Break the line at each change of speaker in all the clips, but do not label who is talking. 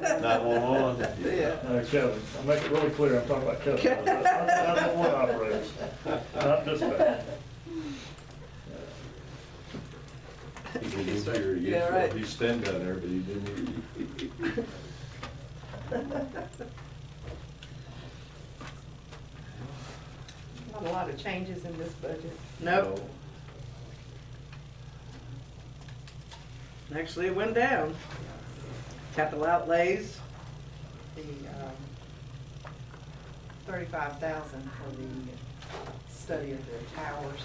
911.
Yeah.
No, Kelly, I make it really clear, I'm talking about Kelly. I'm not- I'm not one operator, not dispatch.
He didn't hear you.
Yeah, right.
He's standing down there, but he didn't hear you.
Not a lot of changes in this budget.
Nope, actually it went down. Capital outlays,
The um, thirty-five thousand for the study of the towers,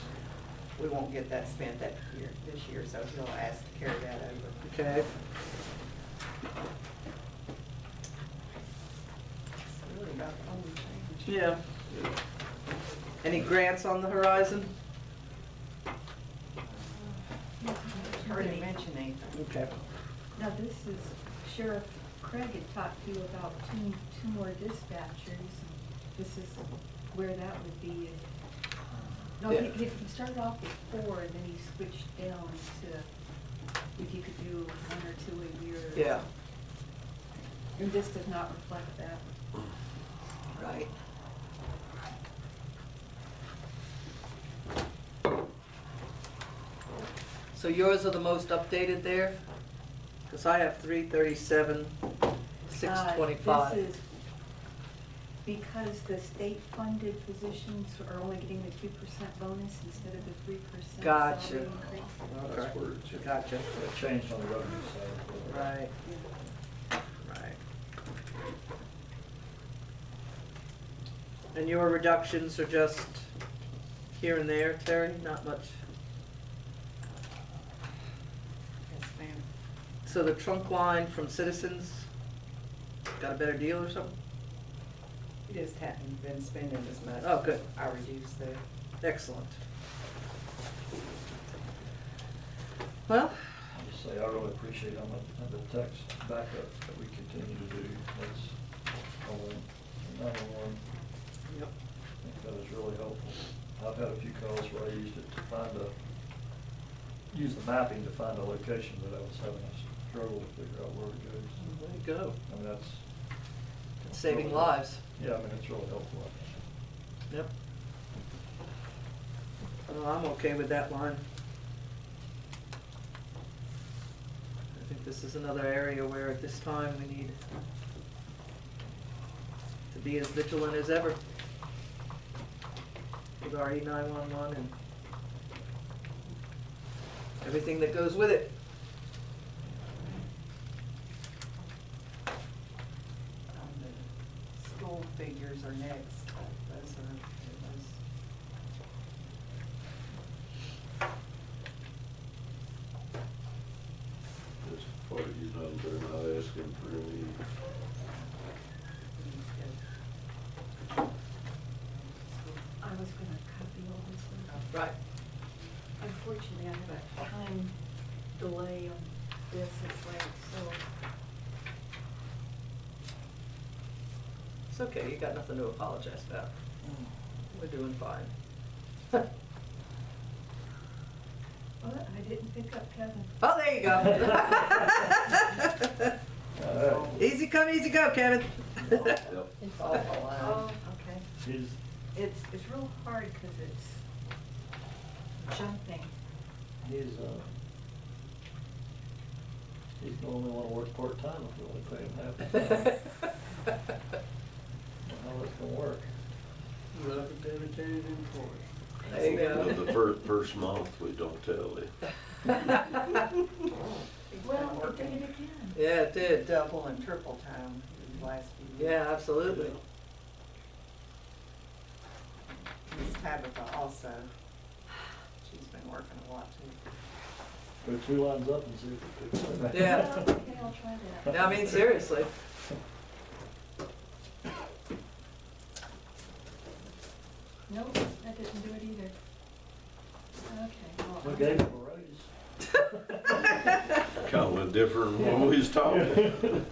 we won't get that spent that year, this year, so he'll ask to carry that over.
okay.
That's really about the only change.
Yeah. Any grants on the horizon?
Already mentioned anything.
Okay.
Now, this is Sheriff Craig had talked to you about two, two more dispatchers. This is where that would be. if- No,
Yeah.
he, he started off with four and then he switched down to if you could do one or two a year.
Yeah,
And this does not reflect that.
right. So yours are the most updated there? Because I have three thirty-seven, six
Uh, This
twenty-five.
is because the state funded positions are only getting the two percent bonus instead of the three percent.
Gotcha.
That's where it's at.
Gotcha,
It changed on the revenue side.
right, right. And your reductions are just here and there, Terry, not much?
Yes, ma'am.
So the trunk line from Citizens got a better deal or something?
We just hadn't been spending as much.
Oh, good.
I reduced the um,
Excellent. Well,
I just say, I really appreciate how much of the tax backup that we continue to do. That's all, number one,
yep,
I think that is really helpful. I've had a few calls where I used it to find a, use the mapping to find a location that I was having a struggle to figure out where it goes.
there you go.
I mean, that's.
It's saving lives.
Yeah, I mean, it's really helpful. I think.
Yep. Well, I'm okay with that line. I think this is another area where at this time we need to be as vigilant as ever with our E nine one one and everything that goes with it.
Um, the School figures are next, but those are, those.
As far as you know, they're not asking for any,
I was gonna copy all this one.
Right.
Unfortunately, I have a time delay on this, it's like, so,
It's okay, you got nothing to apologize about. We're doing fine.
oh, I didn't pick up Kevin.
Oh, there you go.
All right.
Easy come, easy go, Kevin.
yep.
It's all
Uh,
Oh, okay.
Is,
It's, it's real hard because it's jumping.
He's, uh, he's the only one to work part-time if you only pay him half. the time. How that's gonna work?
Love a dedicated employee. There you
Well,
go.
The first, first month, we don't tell them.
Well, it did it again.
Yeah, it did.
Double and triple time in the last few years.
Yeah, absolutely.
Miss Tabitha also, she's been working a lot too.
Go two lines up and see if it picks up.
Yeah.
Well, Okay, I'll try that.
No, I mean, seriously.
Nope, that didn't do it either. Okay. well,
We
I'm-
gave him a raise.
Kind of went different when we was talking.